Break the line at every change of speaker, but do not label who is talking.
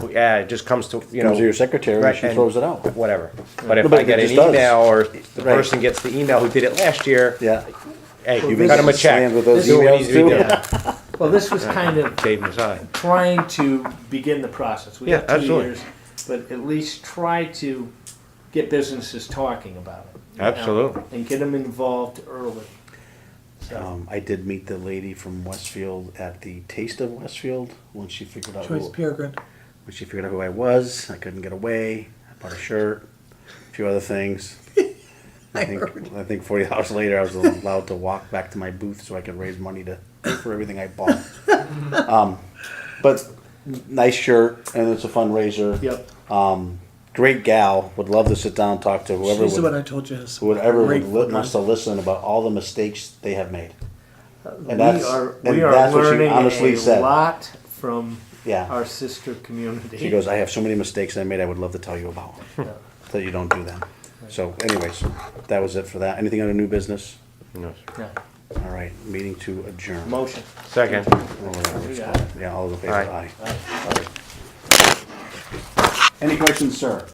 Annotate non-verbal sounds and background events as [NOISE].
yeah, it just comes to, you know.
Comes to your secretary and she throws it out.
Whatever. But if
No, but
I get
it
an
just does.
email or the
Right.
person gets the email who did it last year,
Yeah.
hey,
You've
you
been
cut him a check.
slammed with those
Do what
emails
needs to be
too.
done.
Well, this was kind of
Dave Masai.
trying to begin the process. We
Yeah,
have two
absolutely.
years, but at least try to get businesses talking about it. you know,
Absolutely.
and get them involved early. So,
Um, I did meet the lady from Westfield at the Taste of Westfield when she figured out
Joyce
who,
Peregrine.
when she figured out who I was. I couldn't get away. I bought a shirt, a few other things. I think I think forty hours later, I was allowed to walk back to my booth so I could raise money to pay for everything I bought. um, but nice shirt, and it's a fundraiser.
yep.
Um, great gal. Would love to sit down and talk to whoever
She's the one
would,
I told you. is
whoever would
great
li-
for
wants to listen about all the mistakes they have made.
we
And that's-
are
and
we are
that's what she
learning
honestly
a
said.
lot from
Yeah.
our sister community.
She
[LAUGHS]
goes, I have so many mistakes I made I would love to tell you about. That you don't do them. So anyways, that was it for that. Anything under new business?
Yeah.
All right, meeting to adjourn. Oh, Or
Motion.
Second.
whatever it's
Yeah.
called. Yeah, all those in favor,
Aye.
aye. Aye. Any questions, sir?